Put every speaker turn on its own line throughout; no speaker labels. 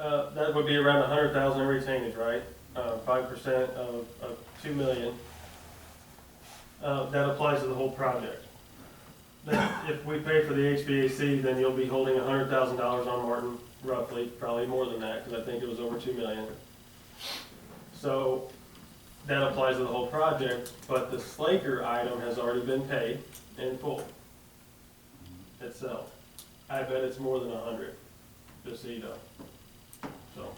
Uh, would be around a hundred thousand in retainage, right? Uh, five percent of, of two million. Uh, that applies to the whole project. That if we pay for the HVAC, then you'll be holding a hundred thousand dollars on Martin, roughly, probably more than that, because I think it was over two million. So, that applies to the whole project, but the Slaker item has already been paid in full itself. I bet it's more than a hundred, just so you know. So.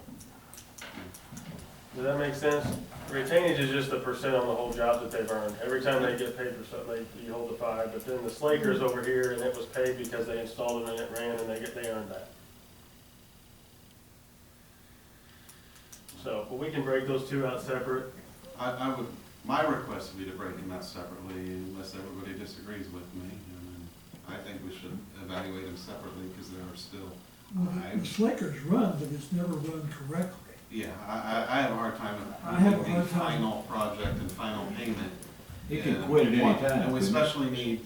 Does that make sense? Retainage is just the percent on the whole job that they've earned. Every time they get paid for something, they, you hold the five, but then the Slaker is over here and it was paid because they installed it and it ran and they get, they earned that. So, but we can break those two out separate.
I, I would, my request would be to break them out separately unless everybody disagrees with me. And I think we should evaluate them separately because there are still,
Well, the- The Slaker's run, but it's never run correctly.
yeah, I, I, I have a hard time
I have a
with the
hard time.
final project and final payment.
He can
And
quit at any
what-
time,
And we
couldn't he?
especially need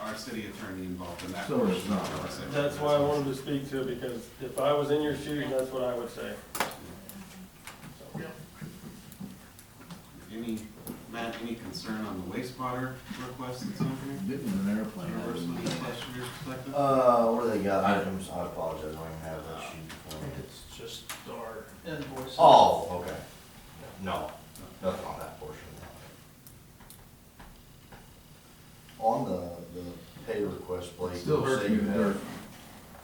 our city attorney involved in that.
So it's
portion of
not.
our section.
That's why I wanted to speak to it, because if I was in your shoes, that's what I would say.
Any, Matt, any concern on the wastewater request that's on here?
This is an airplane.
Universal request from your perspective?
Uh, what do they got? Items, I apologize, I don't even have that sheet for me.
It's just our invoices.
Oh, okay. No, nothing on that portion. On the, the pay request, Blake,
Still
you
hurts
say
me
you
to dirt.
have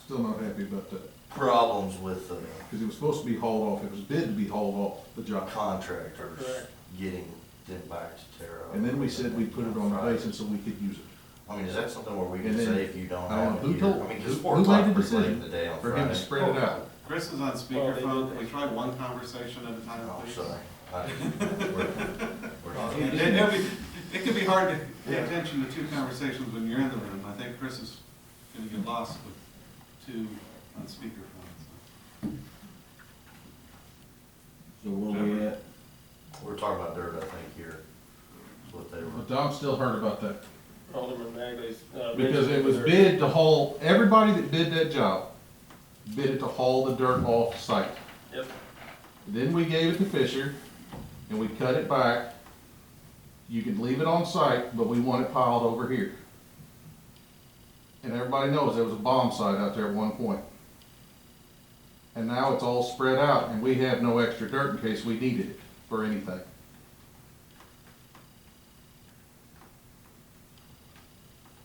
Still not happy about that,
problems with uh, the
because it was supposed to be hauled off, it was bid to be hauled off, the job.
contractors
Correct.
getting them back to Terra.
And then we said we put it on the
Friday.
basis so we could use it.
I mean, is that something where we can
And then-
say if you don't
I don't
have
know, who
it here?
told-
I mean,
who-
because
who
Fort
made the
Clock pretty late
decision
in the day on
For him to
Friday.
spread it out.
Chris is on
Well, they
speakerphone,
did-
we tried one conversation at a time,
Oh,
please.
sorry. I- we're- we're-
It, it be- it can be hard to pay attention to two conversations when you're in the room, I think Chris is gonna get lost with two on speakerphone. so.
So where we at?
We're talking about dirt, I think, here, is what they
But
were.
Dom's still hurt about that,
Alderman Magley's. uh,
because it was
mentioned there.
bid to haul, everybody that bid that job, bid it to haul the dirt off site.
Yep,
Then we gave it to Fisher, and we cut it back. You can leave it on site, but we want it piled over here. And everybody knows there was a bomb site out there at one point. And now it's all spread out, and we have no extra dirt in case we needed it for anything.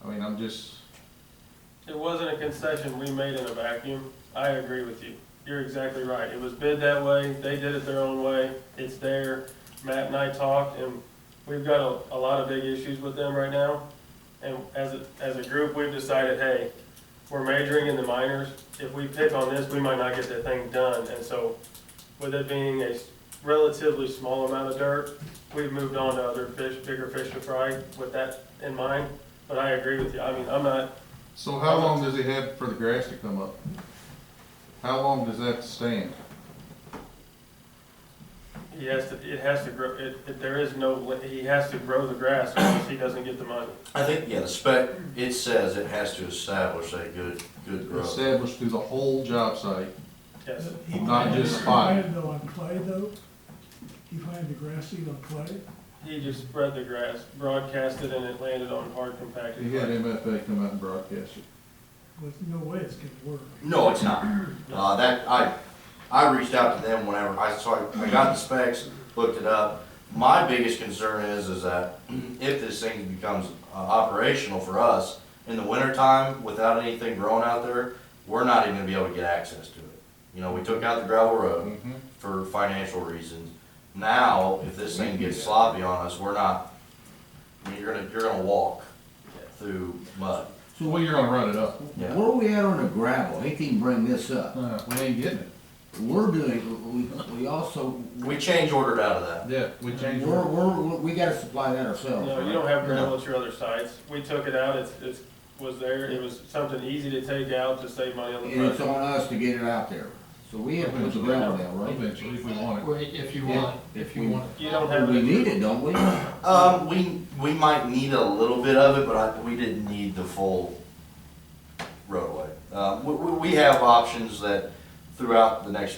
I mean, I'm just,
it wasn't a concession we made in a vacuum, I agree with you, you're exactly right, it was bid that way, they did it their own way, it's there. Matt and I talked, and we've got a, a lot of big issues with them right now, and as a, as a group, we've decided, hey, we're majoring in the minors, if we pick on this, we might not get that thing done, and so, with it being a s- relatively small amount of dirt, we've moved on to other fish, bigger fish to fry with that in mind, but I agree with you, I mean, I'm not,
so how long does he have for the grass to come up? How long does that stand?
He has to, it has to grow, it, it, there is no, li- he has to grow the grass or else he doesn't get the money.
I think, yeah, the spec, it says it has to establish a good, good growth.
Established through the whole job site,
Yes.
Uh, He
Not
planted-
just spot.
He planted though on clay though, he planted the grass seed on clay,
He just spread the grass, broadcast it, and it landed on hard compacted.
He had
clay.
MFA come out and broadcast it.
with no way it's gonna work.
No, it's not. Uh, that, I, I reached out to them whenever, I, so I, I got the specs, looked it up. My biggest concern is, is that if this thing becomes uh, operational for us in the wintertime without anything growing out there, we're not even gonna be able to get access to it. You know, we took out the gravel road
Mm-hmm.
for financial reasons. Now, if this thing gets sloppy on us, we're not, I mean, you're gonna, you're gonna walk through mud.
So we are gonna run it up?
Yeah.
Where we at on the gravel? He can bring this up.
Uh, we ain't getting it.
We're doing, we, we also,
We change ordered out of that.
Yeah, we
we're,
changed it.
we're, we gotta supply that ourselves.
No, you don't have gravel at your other sites. We took it out, it's, it's, was there, it was something easy to take out to save money on the
And it's
project.
on us to get it out there. So we have to put the gravel down, right?
Eventually, if we want it.
Wait, If you want, if you want.
You don't have
We
it,
need it, don't we?
Um, we, we might need a little bit of it, but I, we didn't need the full roadway. Uh, we, we, we have options that throughout the next